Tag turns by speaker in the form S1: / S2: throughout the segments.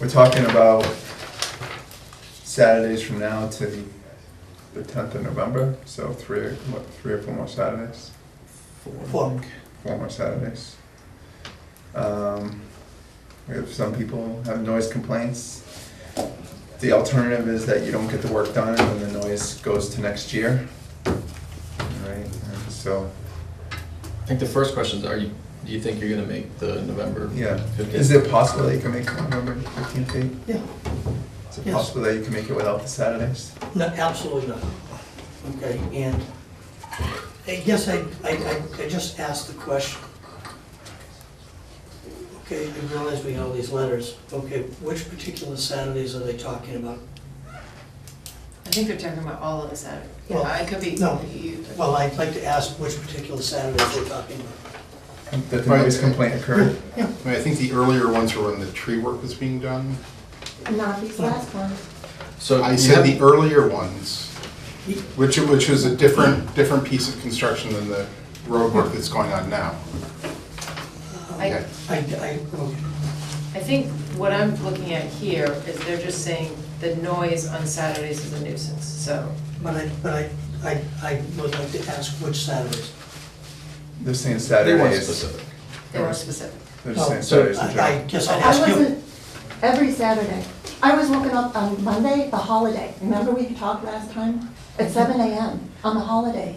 S1: We're talking about Saturdays from now to the, the tenth of November, so three, what, three or four more Saturdays?
S2: Four.
S1: Four more Saturdays. Um, we have, some people have noise complaints. The alternative is that you don't get the work done and then the noise goes to next year. Right, and so,
S3: I think the first question is, are you, do you think you're gonna make the November?
S1: yeah,
S3: 15th?
S1: is it possible that you can make November fifteenth date?
S2: Yeah,
S1: Is it
S2: Yes.
S1: possible that you can make it without the Saturdays?
S2: no, absolutely not. Okay, and I guess I, I, I- I just asked the question. Okay, you realize we have all these letters. Okay, which particular Saturdays are they talking about?
S4: I think they're talking about all of the Saturday.
S2: Well,
S4: Yeah, I could be.
S2: no.
S4: you-
S2: Well, I'd like to ask which particular Saturdays they're talking about.
S1: That the noise complaint occurred?
S5: I mean, I think the earlier ones were when the tree work was being done.
S6: Not these last ones.
S3: So
S5: I
S3: you
S5: said the
S3: have-
S5: earlier ones, which, which was a different, different piece of construction than the road work that's going on now.
S4: I,
S2: Um, I, I, okay.
S4: I think what I'm looking at here is they're just saying the noise on Saturdays is a nuisance, so.
S2: But I, but I, I, I would like to ask which Saturdays.
S1: They're saying
S3: They weren't
S1: Saturdays.
S3: specific.
S4: They weren't specific.
S1: They're just saying
S2: No,
S1: Saturdays in
S2: I I
S1: general.
S2: guess I'd
S6: I
S2: ask you.
S6: wasn't, every Saturday. I was looking up on Monday, the holiday. Remember we talked last time? At seven AM on the holiday.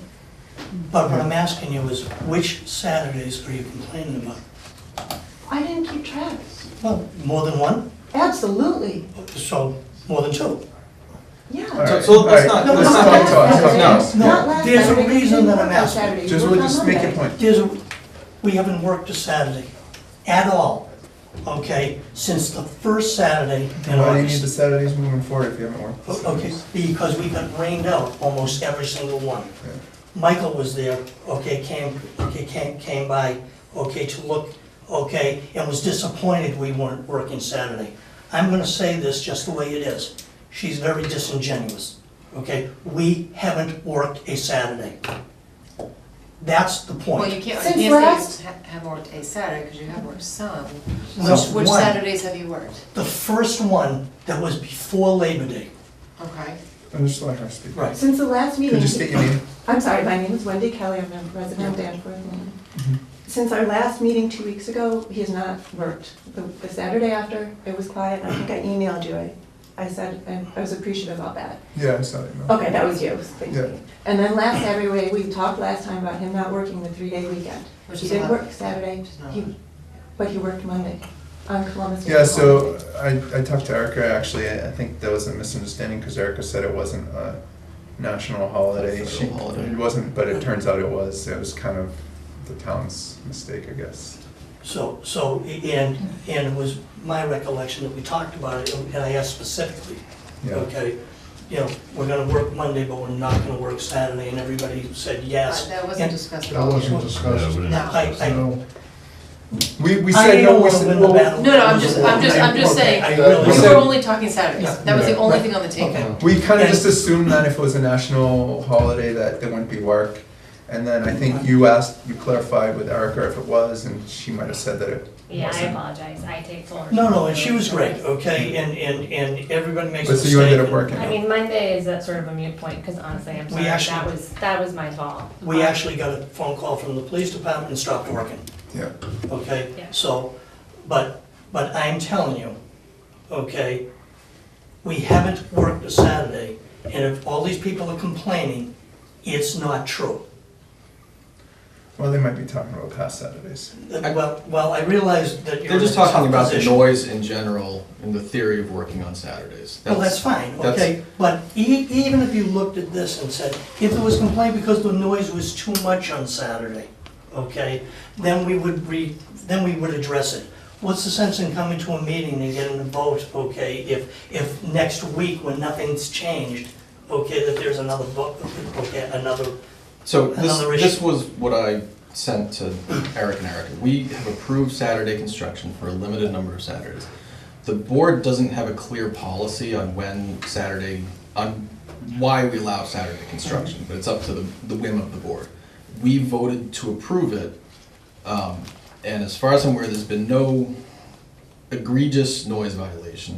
S2: But what I'm asking you is which Saturdays are you complaining about?
S6: I didn't keep track.
S2: Well, more than one,
S6: Absolutely,
S2: so more than two.
S1: All
S6: yeah.
S1: right,
S7: So- so let's
S1: all
S7: not-
S1: right.
S7: let's
S1: Let's
S7: not-
S1: talk, talk,
S6: Saturday.
S1: talk.
S2: No,
S6: Not last
S2: there's a
S6: Saturday. You
S2: reason
S6: didn't
S2: that
S6: work
S2: I'm
S6: on
S2: asking.
S6: Saturday. You
S1: Just, we'll
S6: worked on
S1: just make your
S6: Monday.
S1: point.
S2: There's, a- we haven't worked a Saturday at all, okay, since the first Saturday in
S1: Why do you need the
S2: August.
S1: Saturdays moving forward if you haven't worked? the
S2: O- Oh, Okay,
S1: Saturdays?
S2: because we got rained out almost every single one.
S1: Yeah.
S2: Michael was there, okay, came, okay, came, came by, okay, to look, okay, and was disappointed we weren't working Saturday. I'm gonna say this just the way it is. She's very disingenuous, okay? We haven't worked a Saturday. That's the
S4: Well, you
S2: point.
S4: can't,
S6: Since
S4: you can't
S6: last-
S4: say you ha- have worked a Saturday, because you have worked some.
S2: No,
S4: Which- Which
S2: one.
S4: Saturdays have you worked?
S2: The first one that was before Labor Day.
S4: Okay.
S1: I'm just letting her speak.
S2: Right.
S6: Since the last
S1: Could
S6: meeting.
S1: you just state your name?
S6: I'm sorry, my name is Wendy Kelly, I'm a resident of Danforth. Maine.
S1: Mhm.
S6: Since our last meeting two weeks ago, he has not worked. The the Saturday after, it was quiet, I think I emailed you, I, I said, and I was appreciative about that.
S1: Yeah, I saw that email.
S6: Okay, that was you, thank
S1: Yeah.
S6: you. And then last Saturday, we talked last time about him not working the three-day weekend.
S4: Which
S6: He
S4: is
S6: did
S4: allowed.
S6: work Saturday,
S4: not
S6: he- but he worked Monday on Columbus. Day
S1: Yeah, so
S6: holiday.
S1: I, I talked to Erica, actually, I I think there was a misunderstanding because Erica said it wasn't a national holiday.
S3: Federal
S1: She,
S3: holiday.
S1: it wasn't, but it turns out it was. It was kind of the town's mistake, I guess.
S2: So, so, and, and it was my recollection that we talked about it, and I asked specifically,
S1: Yeah.
S2: okay, you know, we're gonna work Monday, but we're not gonna work Saturday, and everybody said yes.
S4: Uh, That wasn't
S2: And
S4: discussed at
S8: That
S4: all.
S8: wasn't discussed.
S4: No,
S2: I, I,
S8: So,
S1: We, we
S2: I
S1: said no,
S2: don't
S1: we
S2: wanna
S1: said,
S2: win the
S1: well,
S2: battle.
S4: no, no, I'm just, I'm just, I'm just
S2: Okay,
S4: saying,
S2: I
S8: We
S4: we
S2: really,
S1: said-
S4: were only talking Saturdays.
S2: Yeah.
S4: That was the
S1: Yeah.
S4: only thing on the table.
S2: okay,
S1: We kind of
S2: And-
S1: just assumed that if it was a national holiday that there wouldn't be work. And then I think you asked, you clarified with Erica if it was, and she might have said that it
S9: Yeah, I
S1: wasn't.
S9: apologize, I take full responsibility.
S2: no, no, and she was great, okay, and, and, and everybody makes a
S1: But so
S2: mistake.
S1: you ended up
S2: and
S1: working.
S9: I mean, Monday is that sort of a mute point, because honestly, I'm
S2: We
S9: sorry, that
S2: actually-
S9: was, that was my fault. Um,
S2: We actually got a phone call from the police department and stopped working.
S1: Yeah.
S2: okay?
S9: Yeah.
S2: So, but, but I'm telling you, okay, we haven't worked a Saturday, and if all these people are complaining, it's not true.
S1: Well, they might be talking about past Saturdays.
S3: I-
S2: Well, well, I realize that you're in
S3: They're
S2: a
S3: just talking
S2: tough
S3: about the
S2: position.
S3: noise in general and the theory of working on Saturdays.
S2: Well, that's fine,
S3: that's-
S2: okay, but e- even if you looked at this and said, if there was complaint because the noise was too much on Saturday, okay, then we would re, then we would address it. What's the sense in coming to a meeting and getting a vote, okay, if, if next week when nothing's changed, okay, that there's another vote, okay, another,
S3: So this,
S2: Another issue.
S3: this was what I sent to Eric and Erica. We have approved Saturday construction for a limited number of Saturdays. The board doesn't have a clear policy on when Saturday, on why we allow Saturday construction, but it's up to the, the whim of the board. We voted to approve it, um, and as far as I'm aware, there's been no egregious noise violation.